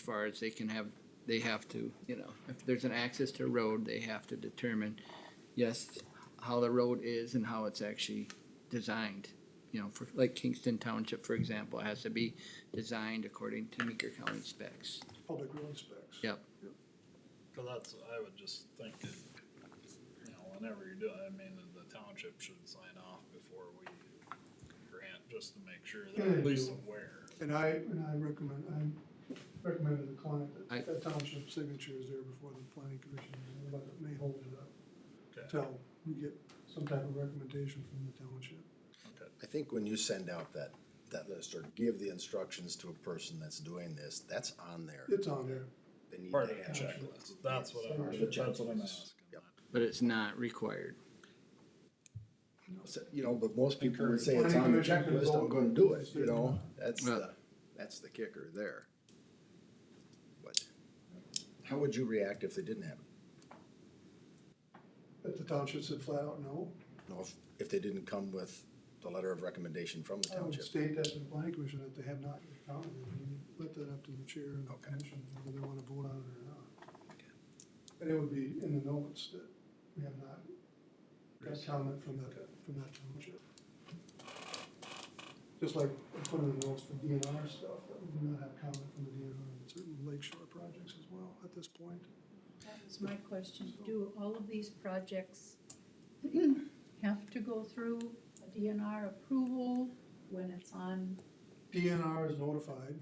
far as they can have, they have to, you know, if there's an access to a road, they have to determine, yes, how the road is and how it's actually designed. You know, for, like Kingston Township, for example, has to be designed according to Meeker County specs. Public road specs. Yep. Cause that's, I would just think that, you know, whenever you're doing, I mean, the township should sign off before we grant, just to make sure they're at least aware. And I, and I recommend, I recommend to the client I- that that township signature is there before the planning commission, but it may hold it up Okay, until we get some type of recommendation from the township. okay. I think when you send out that, that list or give the instructions to a person that's doing this, that's on there. It's on there. They need Part of to the have it. checklist, that's what I'm, The that's what I'm checklist. asking. Yep. But it's not required. So, You know, but most people would say it's Planning on the commission can checklist, I'm vote. gonna do it, you know, that's Well- the, that's the kicker there. But how would you react if they didn't have it? If the township said flat out no, No, if, if they didn't come with the letter of recommendation from the I would township? Oh, state that to the planning commission that they have not found it. and Let that up to the chair and the Okay. commission, whether they wanna vote on it or not. And it would be in the notes that we have not got comment from that, from that township. Just like in front of the notes for DNR stuff, that we do not have comment from the DNR on certain lakeshore projects as well at this point. That was my question. Do all of these projects have to go through a DNR approval when it's on? DNR is notified,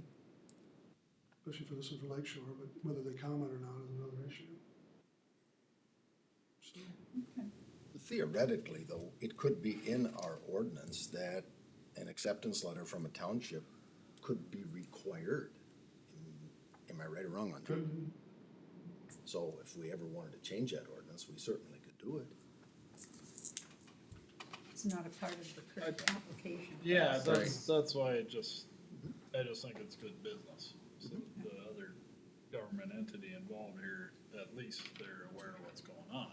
especially for this is for Lakeshore, but whether they comment or not is another issue. So, Theoretically, though, it could be in our ordinance that an acceptance letter from a township could be required. Am I right or wrong on that? Couldn't, So if we ever wanted to change that ordinance, we certainly could do it. It's not a part of the current application. Uh, Yeah, process. that's, that's why I just, I just think it's good business, so that the other government entity involved here, at least they're aware of what's going on.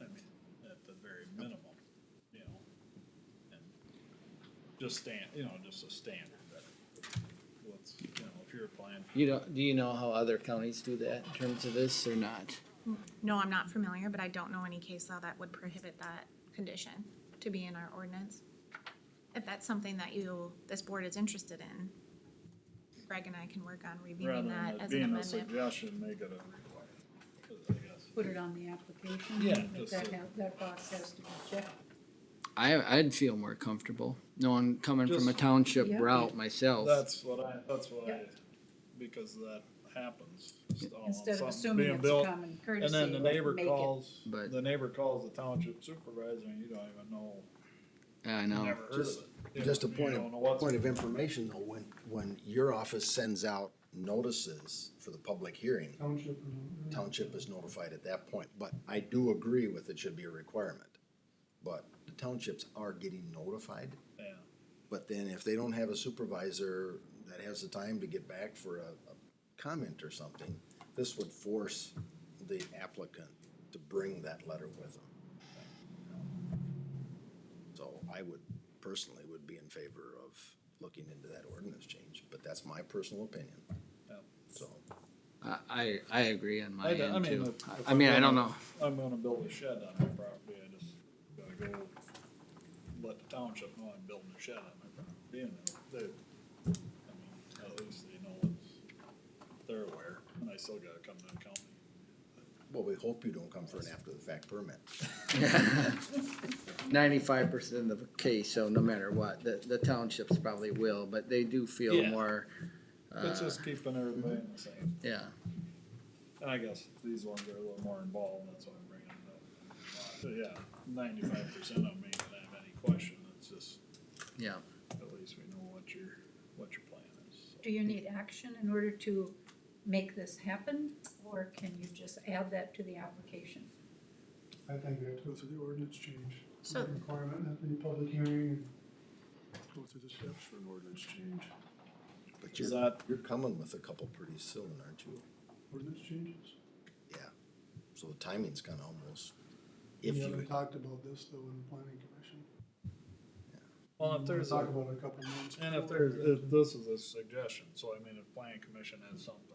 I mean, at the very minimum, you know, and just stand, you know, just a standard that what's, you know, if you're applying. You don't, do you know how other counties do that in terms of this or not? No, I'm not familiar, but I don't know any case law that would prohibit that condition to be in our ordinance. If that's something that you, this board is interested in, Greg and I can work on rather reviewing than that it as an Being a amendment. suggestion, make it a requirement, I guess. Put it on the application. Yeah, Make just that, so- have- that box has to be checked. I, I'd feel more comfortable knowing, coming from a Just- township Yeah. route myself. That's what I, that's what I, Yep. because that happens. just all on Instead of something assuming being it's built. common And courtesy. then the neighbor make it- calls, But- the neighbor calls the township supervisor and you don't even know, I know. never heard of it. Just- You Just a know, you point don't know what's- of, point of information though, when, when your office sends out notices for the public hearing, township and. township is notified at that point, but I do agree with it should be a requirement. But the townships are getting notified, Yeah, but then if they don't have a supervisor that has the time to get back for a, a comment or something, this would force the applicant to bring that letter with them. So I would personally would be in favor of looking into that ordinance change, but that's my personal opinion, yeah. so. I, I, I agree on my I d- I end mean, too. if- if I mean, I'm I don't gonna- know. I'm gonna build a shed on my property, I just gotta go let the township know I'm building a shed on my property and they, I mean, at least they know it's, they're aware, and I still gotta come to the county. Well, we hope you don't come for an after-the-fact permit. Ninety-five percent of the case, so no matter what, the, the townships probably will, but they do feel Yeah. more, It's Uh, just keeping everybody in the same. yeah. And I guess these ones are a little more involved, that's why I'm bringing it up. So yeah, ninety-five percent of me can have any question, it's just, Yeah, at least we know what your, what your plan is. Do you need action in order to make this happen, or can you just add that to the application? I think we have to go through the ordinance change. So- Requirement at the public hearing and go through the steps for an ordinance change. But Is you're, that- you're coming with a couple pretty soon, aren't you? Ordinance changes? Yeah, so the timing's kinda almost, if We you, haven't talked about this though in the planning commission. Well, if there's, Talk a- about it a couple months. and if before. there's, if this is a suggestion, so I mean, if planning commission has something